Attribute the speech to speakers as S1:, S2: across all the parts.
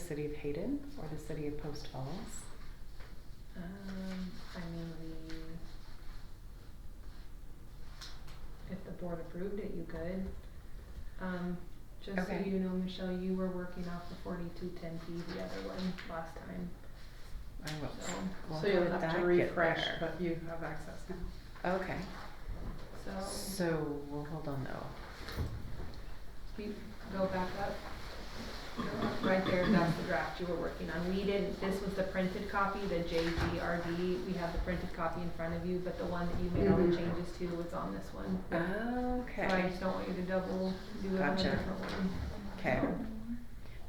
S1: city of Hayden or the city of Post Falls?
S2: Um, I mean, we, if the board approved it, you could. Um, just so
S1: Okay.
S2: you know, Michelle, you were working off the forty-two ten P, the other one, last time,
S1: I will.
S2: so.
S1: Well,
S3: So you'll
S1: how did
S3: have
S1: that
S3: to
S1: get
S3: refresh,
S1: there?
S3: but you have access now.
S1: Okay,
S2: So,
S1: so we'll hold on though.
S2: you go back up. Go up Right there, that's the draft you were working on. We didn't, this was the printed copy, the JGRD, we have the printed copy in front of you, but the one that you made all the
S1: Mhm.
S2: changes to was on this one. So I
S1: Okay,
S2: just don't want you to double do it on a
S1: Gotcha.
S2: different one.
S1: okay,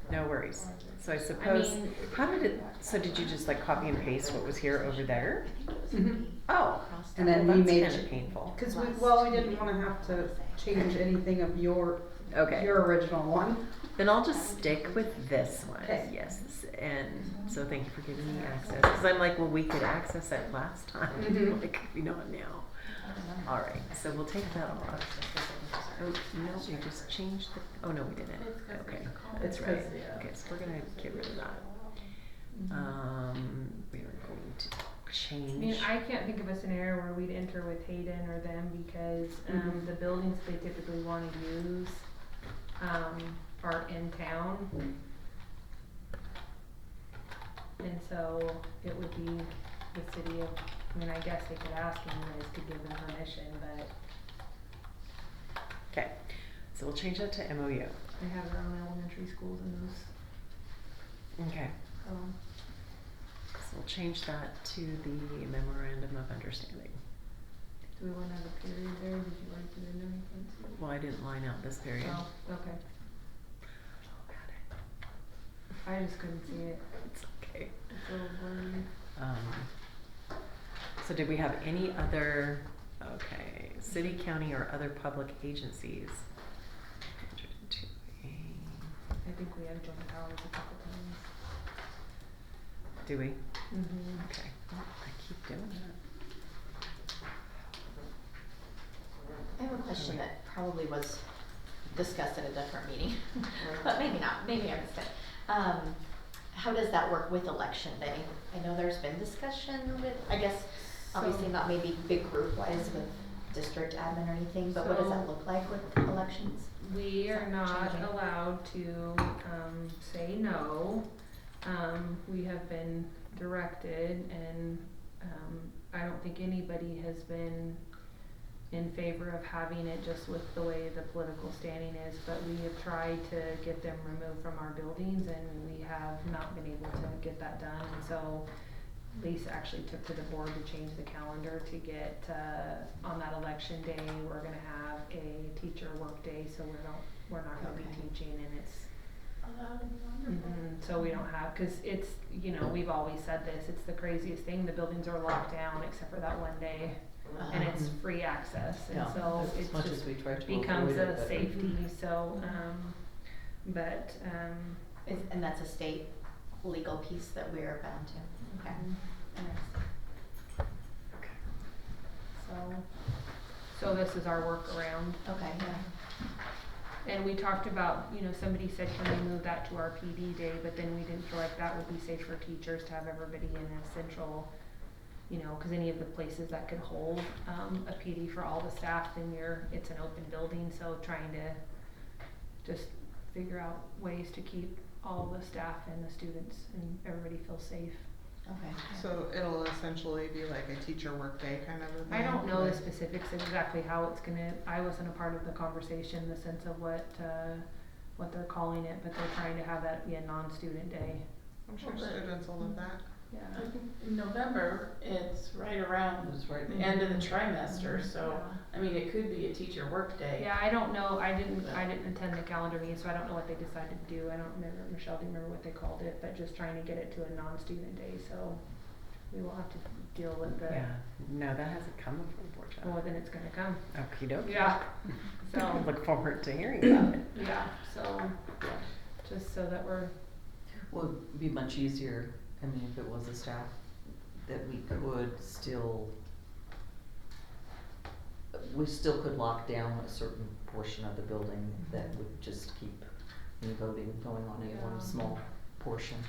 S1: no worries. So I
S2: I
S1: suppose,
S2: mean,
S1: how did it, so did you just like copy and paste what was here over there?
S3: Mhm.
S1: Oh,
S3: And then we made
S1: That's kinda
S3: ch-
S1: painful.
S3: Cause we, well, we didn't wanna have to change anything of your,
S1: Okay.
S3: your original one.
S1: Then I'll just stick with this one.
S3: Okay.
S1: Yes, and so thank you for giving me access. Because I'm like, well, we could access it last time.
S3: Mhm.
S1: Like, we know it now. All right, so we'll take that off. Oh, no, we just changed the, oh, no, we didn't. Okay, that's
S3: It's
S1: right.
S3: 'cause, yeah.
S1: Okay, so we're gonna get rid of that.
S2: Mm-hmm.
S1: Um, we are going to
S2: I mean,
S1: change.
S2: I can't think of a scenario where we'd enter with Hayden or them because, um,
S3: Mhm.
S2: the buildings they typically wanna use, um, are in town. And so it would be the city of, I mean, I guess they could ask and you guys could give them permission, but
S1: Okay, so we'll change that to MOU.
S2: they have their own elementary schools in those, um,
S1: Okay,
S2: so.
S1: so we'll change that to the memorandum of understanding.
S2: Do we wanna have a period there, did you wanna put in anything?
S1: Well, I didn't line out this period.
S2: Oh, okay,
S1: Oh,
S2: I just couldn't see it,
S1: It's okay.
S2: it's a little blurry.
S1: Um, so did we have any other, okay, city, county, or other public agencies?
S2: I think we have joint powers a couple times.
S1: Do we?
S2: Mm-hmm.
S1: Okay, Well, I keep doing that.
S4: I have a question that probably was discussed at a different meeting, but maybe not, maybe I missed it. Um, how does that work with election day? I know there's been discussion with, I guess, obviously
S2: So-
S4: not maybe big group wise with district admin or anything, but what does that
S2: So-
S4: look like with elections?
S2: We are not
S4: Changing.
S2: allowed to, um, say no. Um, we have been directed and, um, I don't think anybody has been in favor of having it just with the way the political standing is, but we have tried to get them removed from our buildings and we have not been able to get that done, and so Lisa actually took to the board to change the calendar to get, uh, on that election day, we're gonna have a teacher workday, so we don't, we're not gonna
S4: Okay.
S2: be teaching and it's, Mhm, so we don't have, cause it's, you know, we've always said this, it's the craziest thing, the buildings are locked down except for that one day, and it's
S3: Mhm.
S2: free access, and so it's just
S3: we try to
S2: becomes a safety, so, um, but, um,
S4: Is- And that's a state legal piece that we are bound to, okay.
S2: um,
S4: Interesting.
S2: Mm-hmm. so, so this is our workaround.
S4: Okay, yeah.
S2: And we talked about, you know, somebody said, can we move that to our PD day, but then we didn't feel like that would be safe for teachers to have everybody in a central, you know, cause any of the places that could hold, um, a PD for all the staff, then you're, it's an open building, so trying to just figure out ways to keep all the staff and the students and everybody feel safe.
S4: Okay. yeah.
S5: So it'll essentially be like a teacher workday kind of a thing?
S2: I don't know the
S5: like-
S2: specifics of exactly how it's gonna, I wasn't a part of the conversation, the sense of what, uh, what they're calling it, but they're trying to have that be a non-student day.
S5: I'm sure students will love that.
S2: Yeah.
S6: I think in November, it's right Mm-hmm. around the end of the trimester, so, I mean, it could be a teacher workday.
S2: Yeah, I don't know, I didn't, I didn't attend the calendar meeting, so I don't know what they decided to do, I don't remember, Michelle, do you remember what they called it, but just trying to get it to a non-student day, so we will have to deal with the,
S1: Yeah, no, that hasn't come before,
S2: well,
S1: Georgia.
S2: then it's gonna come.
S1: Okey doke.
S2: Yeah, so.
S1: Look forward to hearing about it.
S2: Yeah, so, just so that we're.
S7: Would be much easier, I mean, if it was a staff, that we could still, we still could lock down a certain portion of the building that would just keep any voting going on any one
S2: Yeah.
S7: small portion.